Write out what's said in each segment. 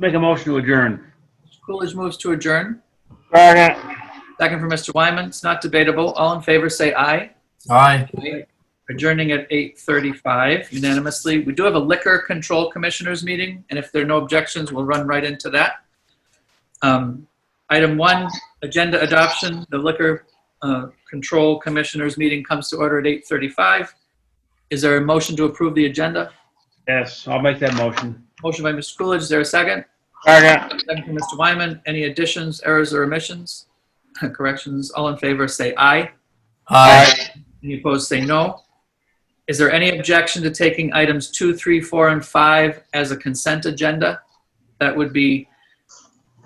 Make a motion to adjourn. Coolidge moves to adjourn. Second. Second from Mr. Wyman. It's not debatable. All in favor, say aye. Aye. Adjourning at 8:35 unanimously. We do have a liquor control commissioners meeting, and if there are no objections, we'll run right into that. Um, Item one, agenda adoption. The liquor uh, control commissioners meeting comes to order at 8:35. Is there a motion to approve the agenda? Yes, I'll make that motion. Motion by Mr. Coolidge. Is there a second? Second. Second from Mr. Wyman. Any additions, errors, or omissions? Corrections? All in favor, say aye. Aye. Any opposed, say no. Is there any objection to taking items two, three, four, and five as a consent agenda? That would be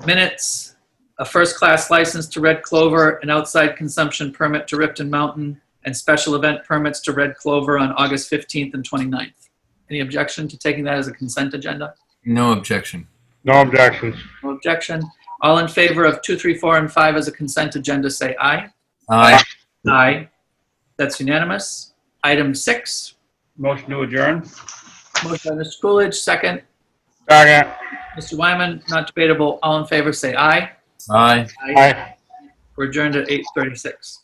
minutes, a first-class license to Red Clover, an outside consumption permit to Ripton Mountain, and special event permits to Red Clover on August 15th and 29th. Any objection to taking that as a consent agenda? No objection. No objections. No objection. All in favor of two, three, four, and five as a consent agenda, say aye. Aye. Aye. That's unanimous. Item six, Motion to adjourn? motion by Mr. Coolidge, second. Second. Mr. Wyman, not debatable. All in favor, say aye. Aye. Aye. We're adjourned at 8:36.